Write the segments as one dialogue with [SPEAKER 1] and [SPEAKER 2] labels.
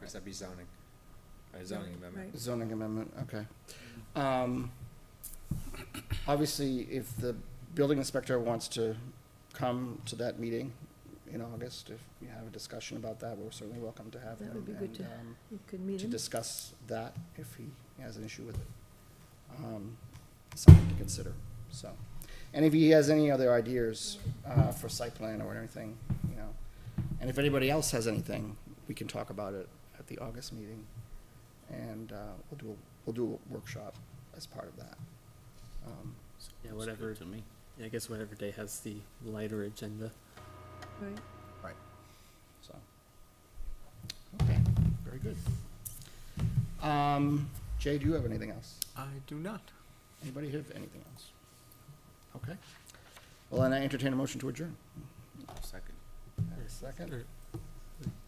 [SPEAKER 1] yes, that'd be zoning, a zoning amendment.
[SPEAKER 2] right.
[SPEAKER 3] Zoning amendment, okay. Um, obviously, if the building inspector wants to come to that meeting in August, if you have a discussion about that, we're certainly welcome to have him.
[SPEAKER 2] That would be good
[SPEAKER 3] and,
[SPEAKER 2] to-
[SPEAKER 3] um,
[SPEAKER 2] You could meet
[SPEAKER 3] To
[SPEAKER 2] him.
[SPEAKER 3] discuss that if he has an issue with it. Um, Something to consider, so. And if he has any other ideas, uh, for site plan or anything, you know. And if anybody else has anything, we can talk about it at the August meeting. And, uh, we'll do, a- we'll do a workshop as part of that. Um,
[SPEAKER 4] Yeah,
[SPEAKER 5] Looks good
[SPEAKER 4] whatever,
[SPEAKER 5] To me.
[SPEAKER 4] yeah, I guess whatever day has the lighter agenda.
[SPEAKER 2] Right.
[SPEAKER 3] So, okay, very good. Um, Jay, do you have anything else?
[SPEAKER 5] I do not.
[SPEAKER 3] Anybody have anything else? Okay. Well, then I entertain a motion to adjourn.
[SPEAKER 5] Second.
[SPEAKER 3] Second?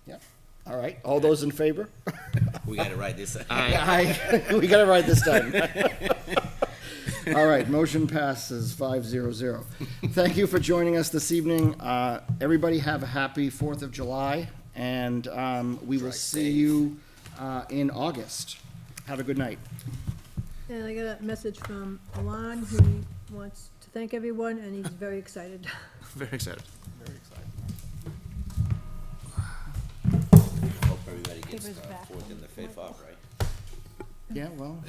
[SPEAKER 3] Yeah, all right, all those in favor?
[SPEAKER 5] We gotta write this.
[SPEAKER 3] Aye. We got it right this time. All right, motion passes five zero zero. Thank you for joining us this evening. Uh, Everybody have a happy Fourth of July, and um, we will see you uh, in August. Have a good night.
[SPEAKER 2] And I got a message from Alon, who wants to thank everyone, and he's very excited.
[SPEAKER 5] Very excited.
[SPEAKER 3] Very excited.
[SPEAKER 5] Hope everybody
[SPEAKER 2] Give us back.
[SPEAKER 5] uh, and the fifth off, right?
[SPEAKER 3] Yeah, well.